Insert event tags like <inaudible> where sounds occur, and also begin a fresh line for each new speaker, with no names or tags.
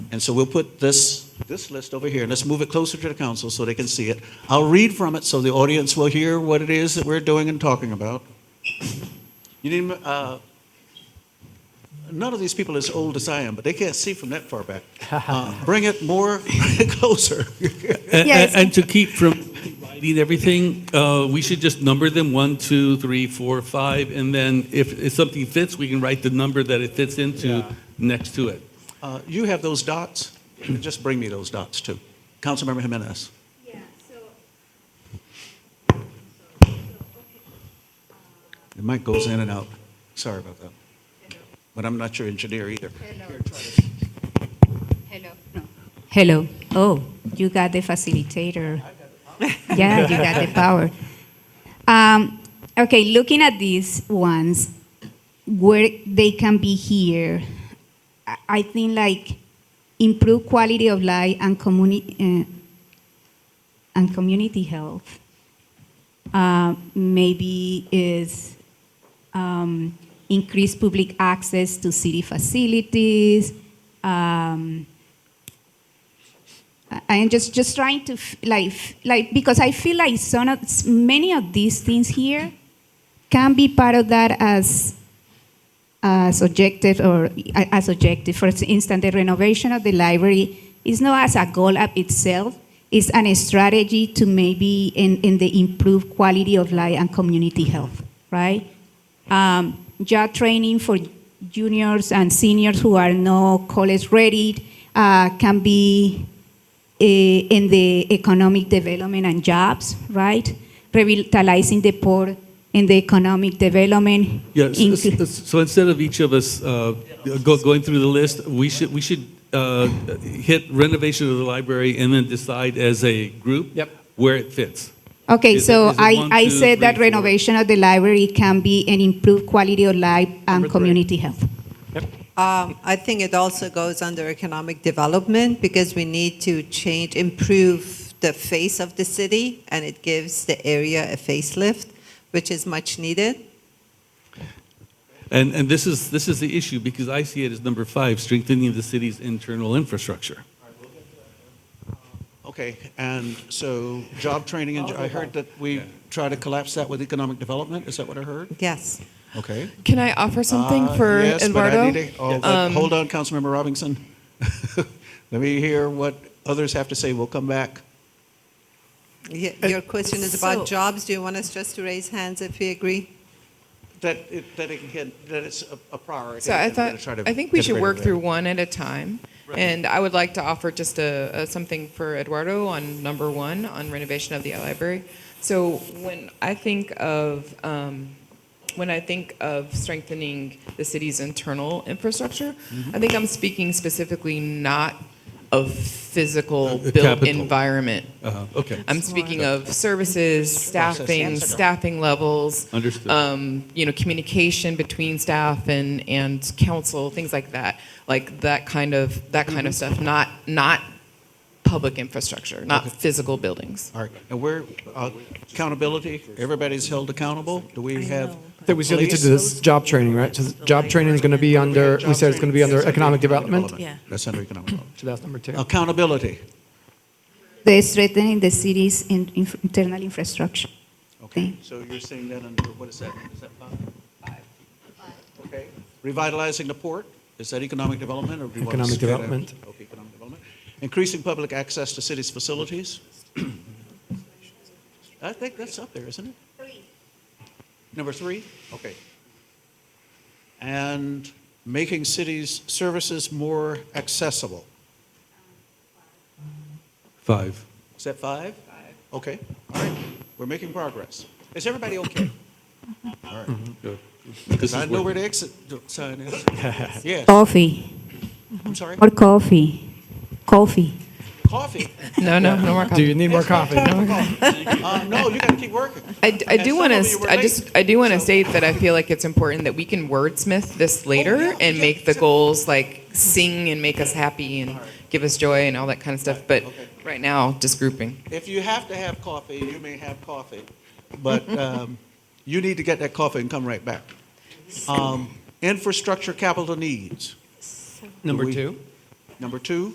And so we'll put this, this list over here, and let's move it closer to the council so they can see it. I'll read from it so the audience will hear what it is that we're doing and talking about. You need, uh, none of these people are as old as I am, but they can't see from that far back. Uh, Bring it more <laughs> closer.
And,
Yes.
and to keep from writing everything, uh, we should just number them, one, two, three, four, five, and then if, if something fits, we can write the number that it fits into next to it.
Uh, You have those dots? Just bring me those dots too. Councilmember Jimenez.
Yeah, so,
The mic goes in and out. Sorry about that. But I'm not your engineer either.
hello, no. Hello, oh, you got the facilitator. Yeah, you got the power. Um, okay, looking at these ones, where they can be here, I- I think like improve quality of life and communi- uh, and community health. Uh, maybe is um, increase public access to city facilities. Um, I- I'm just just trying to f- like f- like because I feel like some of s- many of these things here can be part of that as as objective or a- as objective. For instance, the renovation of the library is not as a goal of itself. It's an strategy to maybe in, in the improved quality of life and community health, right? Um, job training for juniors and seniors who are not college ready uh, can be eh, in the economic development and jobs, right? Revitalizing the poor in the economic development.
Yes,
inclu-
so instead of each of us uh, go- going through the list, we should, we should uh, hit renovation of the library and then decide as a group
Yep.
where it fits.
Okay,
Is it-
so
is it
I,
one,
I
two,
said that
three, four?
renovation of the library can be an improved quality of life and community health.
Um, I think it also goes under economic development because we need to change, improve the face of the city, and it gives the area a facelift, which is much needed.
And, and this is, this is the issue, because I see it as number five, strengthening the city's internal infrastructure.
Okay, and so job training, and I heard that we try to collapse that with economic development. Is that what I heard?
Yes.
Okay.
Can I offer something
Uh,
for
yes, but I
Eduardo?
need to- oh, but
Um,
Hold on, Councilmember Robinson. <laughs> Let me hear what others have to say. We'll come back.
Y- Your question is
so-
about jobs. Do you want us just to raise hands if we agree?
That it, that it can, that it's a- a priority.
So I
and we're gonna
thought,
try to
I think we
get
should
rid of
work
that.
through one at a time. And I would like to offer just a, a something for Eduardo on number one on renovation of the library. So when I think of um, when I think of strengthening the city's internal infrastructure,
Mm-hmm.
I think I'm speaking specifically not of physical
Uh, uh,
built
capital.
environment.
Uh-huh, Okay.
I'm speaking of services, staffing,
Processes.
staffing levels.
Understood.
Um, you know, communication between staff and, and council, things like that. Like that kind of, that kind of stuff, not, not public infrastructure, not physical buildings.
All right, and we're, uh, accountability, everybody's held accountable? Do we have?
That we still need to do
police?
this job training, right? So job training is going to be under, we said it's going to be under economic development.
Yeah. That's under economic development.
So that's number two.
Accountability.
The strengthening the city's in, inf- internal infrastructure.
Okay,
Thing.
so you're saying that under, what is that? Is that five? Okay. Revitalizing the port, is that economic development or do you want to
Economic
split it out?
development.
Okay, economic development. Increasing public access to city's facilities? I think that's up there, isn't it? Number three? Okay. And making cities' services more accessible.
Five.
Is that five? Five. Okay, all right, we're making progress. Is everybody okay? All right.
Good. This
Because
is
I know
what-
where the exit do- sign
<laughs>
is. Yes,
Coffee,
I'm sorry.
more coffee, coffee.
Coffee.
<laughs> No, no, no more
Do you
comments.
need more coffee?
Uh, no, you gotta keep working.
I, d- I
And
do
some
want
of you were
to, I
late,
just, I do want to
so-
state that I feel like it's important that we can wordsmith this later and make the goals like sing and make us happy and give us joy and all that kind of stuff. But
Okay.
right now, just grouping.
If you have to have coffee, you may have coffee, but um, you need to get that coffee and come right back. Um, Infrastructure capital needs,
Number
We-
two.
number two.